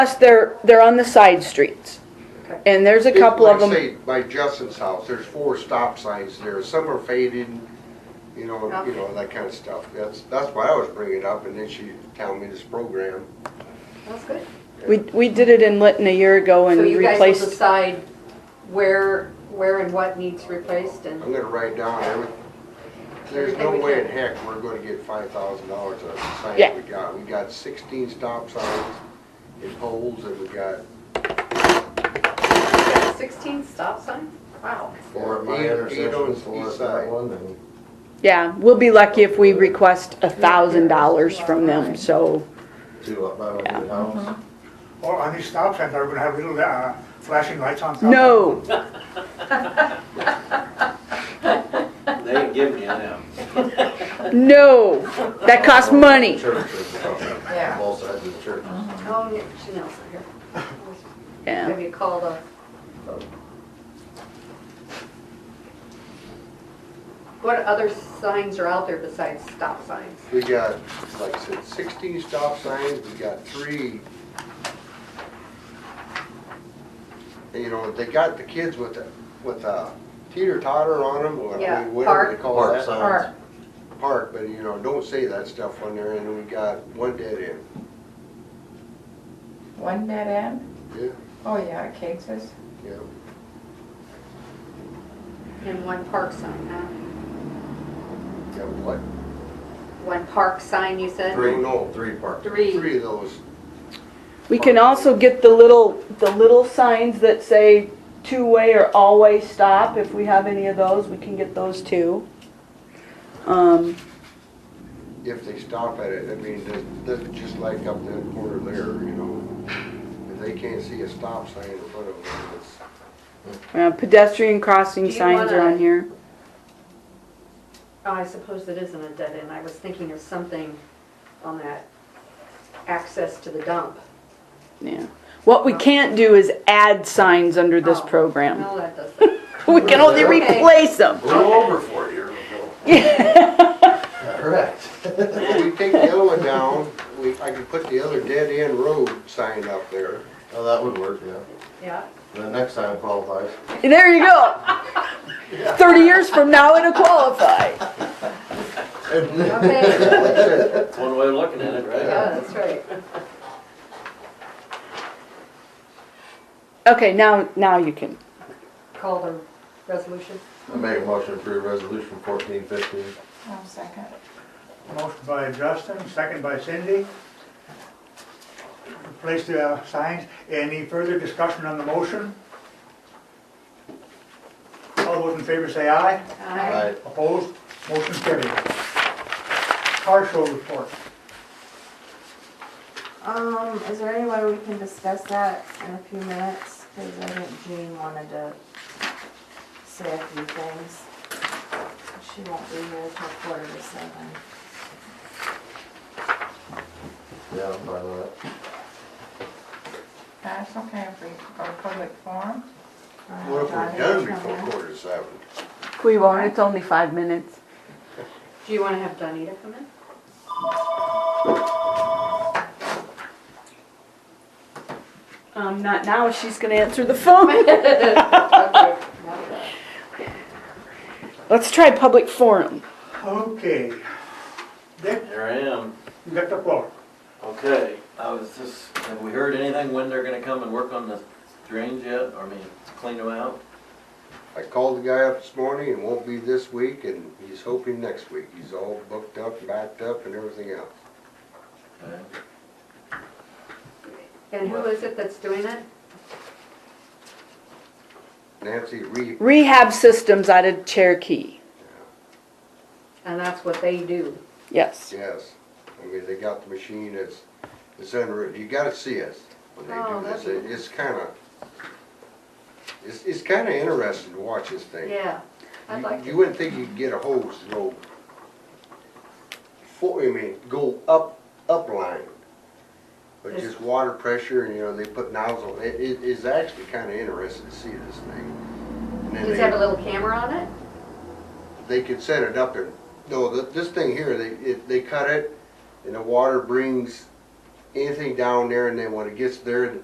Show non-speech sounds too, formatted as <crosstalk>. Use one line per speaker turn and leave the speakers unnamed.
Plus, they're, they're on the side streets. And there's a couple of
Like,
them,
say, By Justin's house, there's four stop signs there, some are faded, you know, you know, that kind of stuff. That's, that's why I was bringing it up, and then she telling me this program.
That's good.
we, we did it in Lytton a year ago and
So you guys will
replaced,
decide where, where and what needs replaced and,
I'm gonna write down every, there's no way in heck we're gonna get five thousand dollars out of the
Yeah.
signs we got. We got sixteen stop signs and poles, and we got
sixteen stop signs? Wow.
Four at my
Eight- eight on
intersection, four
each
at that
side.
one, and
yeah, we'll be lucky if we request a thousand dollars from them, so.
two up by the
Uh-huh.
house.
Or on these stop signs, are we gonna have little uh, flashing lights on top?
No,
They ain't giving you them.
no, that costs money.
Churches, uh, both sides of the church.
Oh, yeah, Chanel's not here.
<laughs> Yeah.
Have you called a? What other signs are out there besides stop signs?
We got, like I said, sixteen stop signs, we got three. You know, they got the kids with the, with a teeter totter on them, or
Yeah,
whatever they call
Park
that.
signs.
Or,
Park, but you know, don't say that stuff on there, and then we got one dead end.
One dead end?
Yeah,
Oh, yeah, at Cage's.
yeah.
and one park sign, huh?
Yeah, what?
One park sign, you said?
Three,
No.
three park.
Three.
Three of those.
We can also get the little, the little signs that say two-way or all-way stop, if we have any of those, we can get those too. Um,
if they stop at it, I mean, that- that's just like up that corner there, you know. If they can't see a stop sign in front of them, it's,
uh, pedestrian crossing
Do you
signs are
wanna-
on here.
Oh, I suppose it isn't a dead end. I was thinking of something on that access to the dump.
Yeah. What we can't do is add signs under this
Oh.
program.
No, that doesn't.
<laughs> We can only
Okay.
replace them.
We're over for a year ago. Correct.
Well, <laughs> we take the other one down, we, I could put the other dead end road sign up there.
Oh, that would work, yeah.
<laughs>
Yeah.
The next time qualifies.
There you go. 30 years from now, it'll qualify.
Okay.
Like I said,
That's one way of looking at it, right?
Yeah, that's right.
Okay, now, now you can.
Call the resolution.
I make a motion to approve resolution fourteen fifteen.
One second.
Motion by Justin, second by Cindy. Place the uh, signs. Any further discussion on the motion? All those in favor say aye.
Aye.
Opposed? Motion carried. Car show report.
Um, is there any way we can discuss that in a few minutes? Cause I think Jean wanted to say a few things. She won't be here till quarter to seven.
Yeah, I'm fine with that.
That's okay if we go to public forum.
What if we're done before quarter to seven?
We won't, it's only five minutes.
Do you want to have Donita come in?
Um, not now, she's gonna answer the <laughs> phone.
Okay, not bad.
Let's try public forum.
Okay. Dick,
Here I am.
you got the floor.
Okay, I was just, have we heard anything when they're gonna come and work on the drains yet? Or I mean, clean them out?
I called the guy up this morning and won't be this week, and he's hoping next week. He's all booked up, backed up and everything else.
Okay.
And who is it that's doing it?
Nancy Reed,
Rehab systems out of Cherokee.
And that's what they do.
Yes.
yes. I mean, they got the machine, it's, it's unreal. You gotta see it when they
Oh,
do this.
that'd
It- It's kinda, it's, it's kinda interesting to watch this thing.
Yeah. I'd
You-
like
You
to.
wouldn't think you'd get a hose to go, for, I mean, go up, up line. But
Yes.
just water pressure, and you know, they put nozzle, it, it is actually kinda interesting to see this thing. And
Does it have a
then
little camera on it?
they, they could set it up there, no, th this thing here, they, it, they cut it, and the water brings anything down there and then when it gets there,